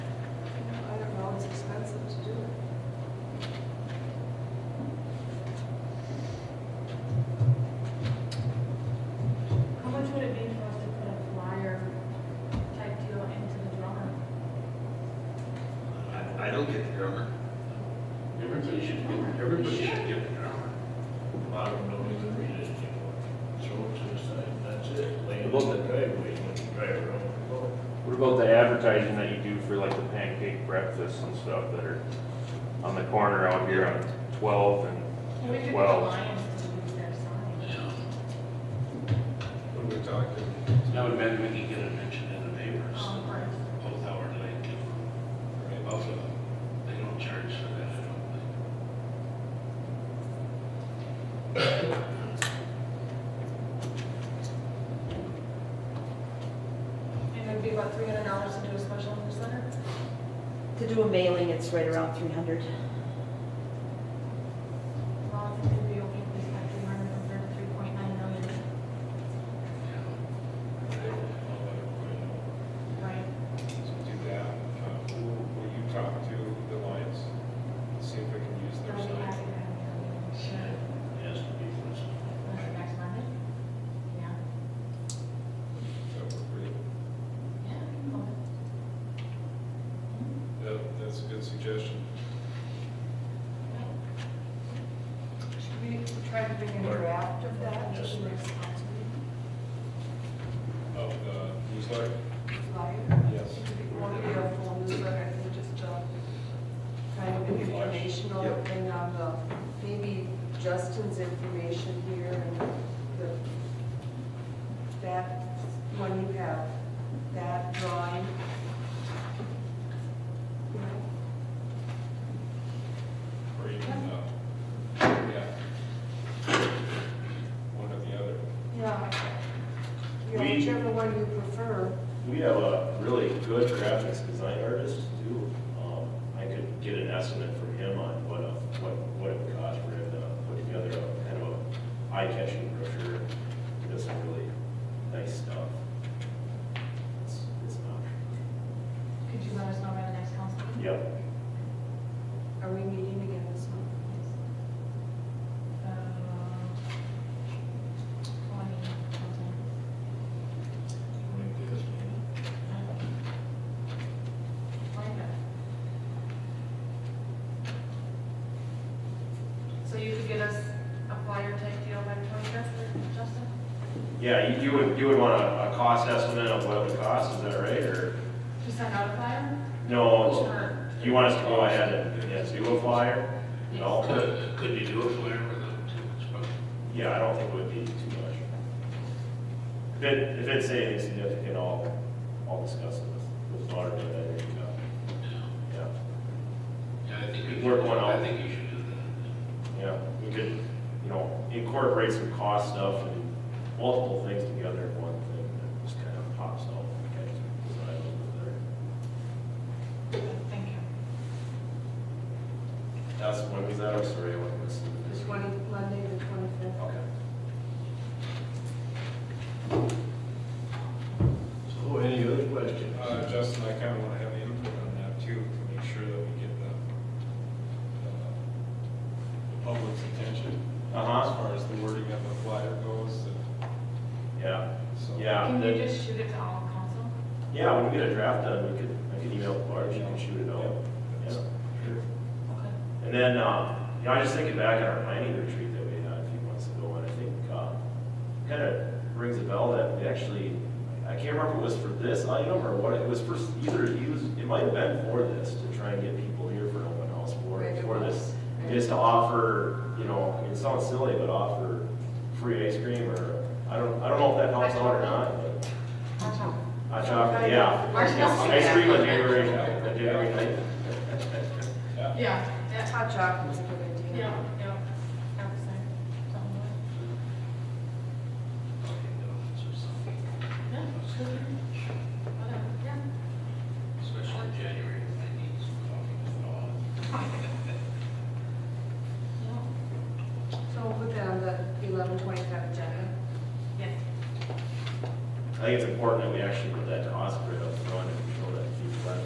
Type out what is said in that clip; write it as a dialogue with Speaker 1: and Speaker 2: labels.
Speaker 1: I don't get the drummer.
Speaker 2: Everybody should get, everybody should get the drummer.
Speaker 3: I don't know even read it anymore. Throw it to the side, that's it. Lay it in the driveway, let the driver on the road.
Speaker 4: What about the advertising that you do for like the pancake breakfasts and stuff that are on the corner out here on
Speaker 5: We
Speaker 4: twelve
Speaker 5: could
Speaker 4: and
Speaker 5: get
Speaker 4: twelve?
Speaker 5: Lions to do their sign.
Speaker 1: When we talked to
Speaker 2: Now, we maybe we could get it mentioned in the papers,
Speaker 5: Um, or-
Speaker 2: both hour late to Buffalo. They don't charge for that, I don't think.
Speaker 5: And it'd be about three hundred dollars to do a special newsletter.
Speaker 6: To do a mailing, it's right around three hundred.
Speaker 5: Well, if it'd be okay, we spent three hundred and thirty-three point nine million, right?
Speaker 7: do that. Uh, Who will you talk to, the Lions, see if we can use
Speaker 5: So
Speaker 7: their
Speaker 5: I'd be
Speaker 7: sign?
Speaker 5: happy to have you. Sure.
Speaker 3: Has to be flexible.
Speaker 5: Was it next Monday? Yeah.
Speaker 7: That would really-
Speaker 5: Yeah. I can hold it.
Speaker 7: that- That's a good suggestion.
Speaker 5: Right.
Speaker 8: Should we try to bring a draft of that to the next council
Speaker 7: Of the newsletter?
Speaker 8: meeting, flyer?
Speaker 7: Yes.
Speaker 8: It could be more than a full newsletter, I think just uh, kind of an informational
Speaker 1: Yep.
Speaker 8: thing on the, maybe Justin's information here and the, that, when you have that drawing. you know,
Speaker 7: Or even, uh, yeah. One or the other.
Speaker 8: Yeah. You know,
Speaker 9: We-
Speaker 8: whichever one you prefer.
Speaker 9: We have a really good graphics design artist too. Um, I could get an estimate from him on what, a- what, what it would cost for him to put together a kind of a eye-catching brochure. He does some really nice stuff. It's, it's not,
Speaker 5: Could you let us know by the next council meeting?
Speaker 9: yep.
Speaker 8: Are we meeting again this month?
Speaker 5: Uh, Twenty, something.
Speaker 3: Like this, man.
Speaker 5: Twenty-fifth. So you could get us a flyer type deal by twenty-fifth, Justin?
Speaker 9: Yeah, you, you would, you would want a, a cost estimate of what it would cost, is that right, or?
Speaker 5: To send out a flyer?
Speaker 9: No,
Speaker 5: Or-
Speaker 9: it's- you want us to go ahead and, yeah, do a flyer? No?
Speaker 2: Could, could you do a flyer without too much budget?
Speaker 9: Yeah, I don't think it would be too much. If it, if it's anything significant, I'll, I'll discuss it with, with Lauren, but I think, uh,
Speaker 2: Yeah,
Speaker 9: yeah,
Speaker 2: Yeah, I think we
Speaker 9: Work
Speaker 2: should,
Speaker 9: one out.
Speaker 2: I think you should do that.
Speaker 9: yeah, we could, you know, incorporate some cost stuff and multiple things together in one thing that just kind of pops out. okay, so I don't know
Speaker 5: Thank you.
Speaker 9: there. That's, when was that, I'm sorry, I wasn't listening.
Speaker 8: The twenty, Monday, the twenty-fifth?
Speaker 9: Okay.
Speaker 3: So any other questions?
Speaker 7: Uh, Justin, I kind of want to have input on that too, to make sure that we get the, uh, the public's attention.
Speaker 9: Uh-huh.
Speaker 7: As far as the wording of the flyer goes, and
Speaker 9: Yeah,
Speaker 7: so.
Speaker 9: yeah.
Speaker 5: Can
Speaker 9: that-
Speaker 5: you just shoot it to all council?
Speaker 9: Yeah, when we get a draft done, we could, I could email Clark, you can shoot it out.
Speaker 7: Yeah.
Speaker 9: Yeah, sure.
Speaker 5: Okay.
Speaker 9: And then, um, you know, I was just thinking back on our planning retreat that we had a few months ago, and I think, uh, kind of rings a bell that we actually, I can't remember if it was for this item or what, it was for either, it was, it might have been for this, to try and get people here for an open house for,
Speaker 8: Right, it
Speaker 9: for this.
Speaker 8: was.
Speaker 9: Is to offer, you know, it sounds silly, but offer free ice cream or, I don't, I don't know if that helps out or not, but hot chocolate, yeah. Ice cream on January, on January ninth.
Speaker 5: Yeah, yeah,
Speaker 8: Hot chocolate's a good idea.
Speaker 5: yeah, yeah. I would say something like-
Speaker 2: Okay, no, it's just something
Speaker 5: Yeah, sure. Whatever, yeah.
Speaker 2: Especially in January, I need some coffee and all.
Speaker 5: Yeah.
Speaker 8: So we'll put that on the eleven twenty-five agenda.
Speaker 5: Yes.
Speaker 9: I think it's important that we actually put that to Osprey,